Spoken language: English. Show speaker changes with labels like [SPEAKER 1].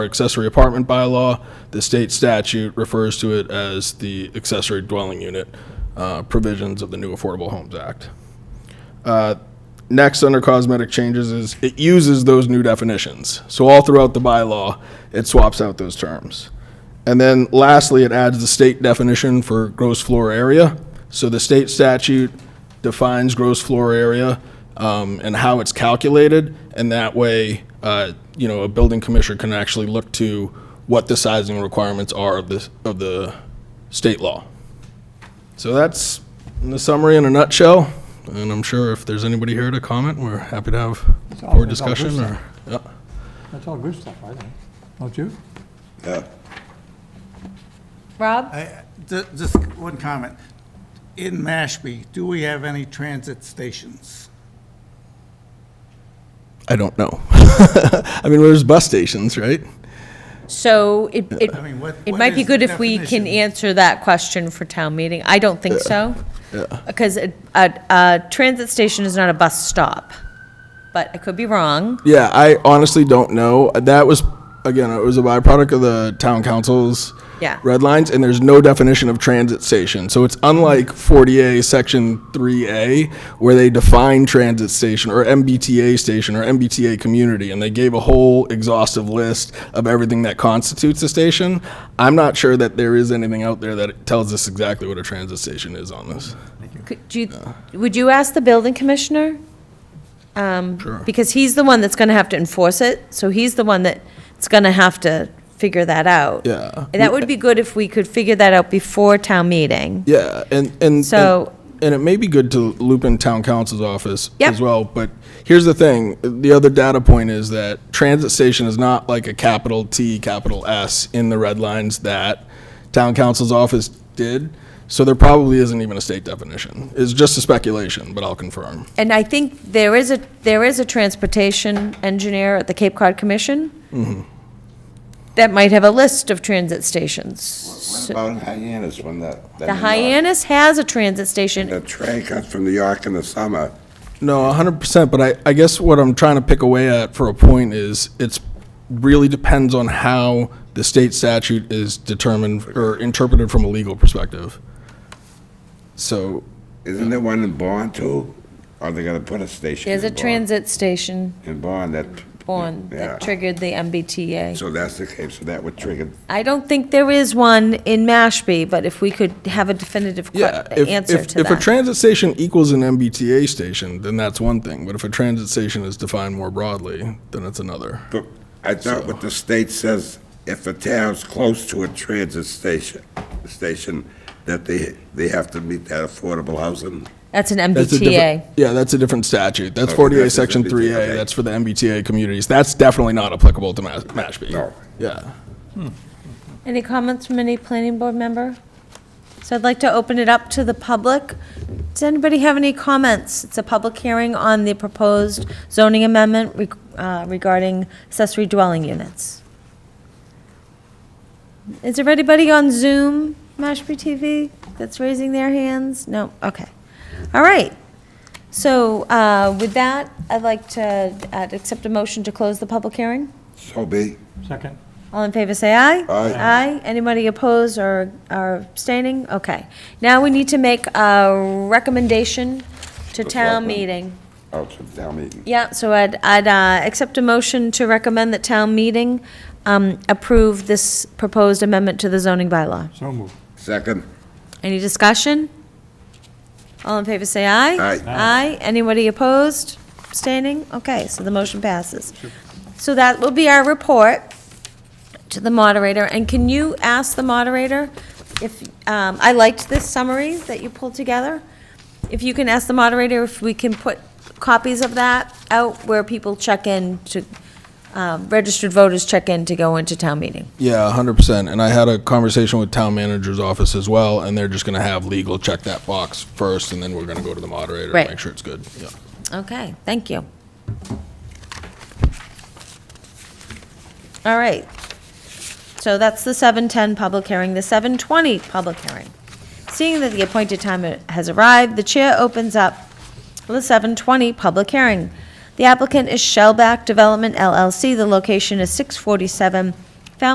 [SPEAKER 1] our accessory apartment bylaw. The state statute refers to it as the accessory dwelling unit uh, provisions of the new Affordable Homes Act. Uh, Next, under cosmetic changes, is it uses those new definitions. So all throughout the bylaw, it swaps out those terms. And then lastly, it adds the state definition for gross floor area. So the state statute defines gross floor area um, and how it's calculated, and that way, uh, you know, a building commissioner can actually look to what the sizing requirements are of the, of the state law. So that's the summary in a nutshell, and I'm sure if there's anybody here to comment, we're happy to have
[SPEAKER 2] It's all-
[SPEAKER 1] more
[SPEAKER 2] it's all good
[SPEAKER 1] discussion or,
[SPEAKER 2] stuff.
[SPEAKER 1] yeah.
[SPEAKER 2] That's all good stuff, I think. Don't you?
[SPEAKER 3] Yeah.
[SPEAKER 4] Rob?
[SPEAKER 5] I- ju- Just one comment. In Mashpee, do we have any transit stations?
[SPEAKER 1] I don't know. I mean, there's bus stations, right?
[SPEAKER 4] So it, it,
[SPEAKER 5] I mean, what-
[SPEAKER 4] it
[SPEAKER 5] what
[SPEAKER 4] might be
[SPEAKER 5] is the
[SPEAKER 4] good if we can
[SPEAKER 5] definition?
[SPEAKER 4] answer that question for town meeting. I don't think so. Because a, a- a transit station is not a bus stop, but I could be wrong.
[SPEAKER 1] Yeah, I honestly don't know. That was, again, it was a byproduct of the town council's
[SPEAKER 4] Yeah.
[SPEAKER 1] red lines, and there's no definition of transit station. So it's unlike 40A, Section 3A, where they define transit station or MBTA station or MBTA community, and they gave a whole exhaustive list of everything that constitutes a station. I'm not sure that there is anything out there that tells us exactly what a transit station is on this.
[SPEAKER 4] Could, do you, would you ask the building commissioner?
[SPEAKER 1] Sure.
[SPEAKER 4] Because he's the one that's gonna have to enforce it, so he's the one that's gonna have to figure that out.
[SPEAKER 1] Yeah.
[SPEAKER 4] And that would be good if we could figure that out before town meeting.
[SPEAKER 1] Yeah, and and
[SPEAKER 4] So-
[SPEAKER 1] and, and it may be good to loop in town council's office
[SPEAKER 4] Yep.
[SPEAKER 1] as well. But here's the thing: the other data point is that transit station is not like a capital T, capital S in the red lines that town council's office did. So there probably isn't even a state definition. It's just a speculation, but I'll confirm.
[SPEAKER 4] And I think there is a, there is a transportation engineer at the Cape Cod Commission
[SPEAKER 1] Mm-hmm.
[SPEAKER 4] that might have a list of transit stations.
[SPEAKER 3] What about in Hyannis when the?
[SPEAKER 4] The Hyannis has a transit station.
[SPEAKER 3] The train comes from New York in the summer.
[SPEAKER 1] No, hundred percent, but I, I guess what I'm trying to pick away at for a point is it's really depends on how the state statute is determined or interpreted from a legal perspective. So,
[SPEAKER 3] Isn't there one in Bond too? Are they gonna put a station?
[SPEAKER 4] There's
[SPEAKER 3] in
[SPEAKER 4] a
[SPEAKER 3] Bourne?
[SPEAKER 4] transit station
[SPEAKER 3] In Bond that.
[SPEAKER 4] on
[SPEAKER 3] Yeah.
[SPEAKER 4] that triggered the MBTA.
[SPEAKER 3] So that's the case, so that would trigger.
[SPEAKER 4] I don't think there is one in Mashpee, but if we could have a definitive que-
[SPEAKER 1] yeah, if,
[SPEAKER 4] answer
[SPEAKER 1] if,
[SPEAKER 4] to
[SPEAKER 1] if a
[SPEAKER 4] that.
[SPEAKER 1] transit station equals an MBTA station, then that's one thing, but if a transit station is defined more broadly, then it's another.
[SPEAKER 3] But I thought what the state says, if a town's close to a transit station, station, that they, they have to meet that affordable housing.
[SPEAKER 4] That's an
[SPEAKER 1] That's a different-
[SPEAKER 4] MBTA.
[SPEAKER 1] Yeah, that's a different statute, that's
[SPEAKER 3] Okay,
[SPEAKER 1] forty-eight,
[SPEAKER 3] that's a
[SPEAKER 1] section
[SPEAKER 3] MBTA,
[SPEAKER 1] three A,
[SPEAKER 3] okay.
[SPEAKER 1] that's for the MBTA communities, that's definitely not applicable to Mas- Mashpee.
[SPEAKER 3] No.
[SPEAKER 1] Yeah.
[SPEAKER 4] Any comments from any planning board member? So I'd like to open it up to the public. Does anybody have any comments? It's a public hearing on the proposed zoning amendment reg- uh, regarding accessory dwelling units. Is there anybody on Zoom, Mashpee TV, that's raising their hands? No, okay. All right. So uh, with that, I'd like to uh, accept a motion to close the public hearing.
[SPEAKER 3] So be,
[SPEAKER 2] Second?
[SPEAKER 4] All in favor, say aye.
[SPEAKER 3] Aye.
[SPEAKER 4] Aye. Anybody opposed or or abstaining? Okay. Now we need to make a recommendation to town
[SPEAKER 3] Selectmen.
[SPEAKER 4] meeting.
[SPEAKER 3] oh, to town meeting.
[SPEAKER 4] Yeah, so I'd, I'd uh, accept a motion to recommend that town meeting um, approve this proposed amendment to the zoning bylaw.
[SPEAKER 2] So moved.
[SPEAKER 3] Second,
[SPEAKER 4] Any discussion? All in favor, say aye.
[SPEAKER 3] Aye.
[SPEAKER 4] Aye. Anybody opposed, abstaining? Okay, so the motion passes. So that will be our report to the moderator. And can you ask the moderator if, um, I liked this summary that you pulled together. If you can ask the moderator if we can put copies of that out where people check in to, um, registered voters check in to go into town meeting.
[SPEAKER 1] Yeah, hundred percent. And I had a conversation with town manager's office as well, and they're just gonna have legal check that box first, and then we're gonna go to the moderator and
[SPEAKER 4] Right.
[SPEAKER 1] make sure it's good. Yeah.
[SPEAKER 4] Okay, thank you. All right. So that's the 7:10 public hearing, the 7:20 public hearing. Seeing that the appointed time has arrived, the chair opens up the 7:20 public hearing. The applicant is Shellback Development LLC. The location is 647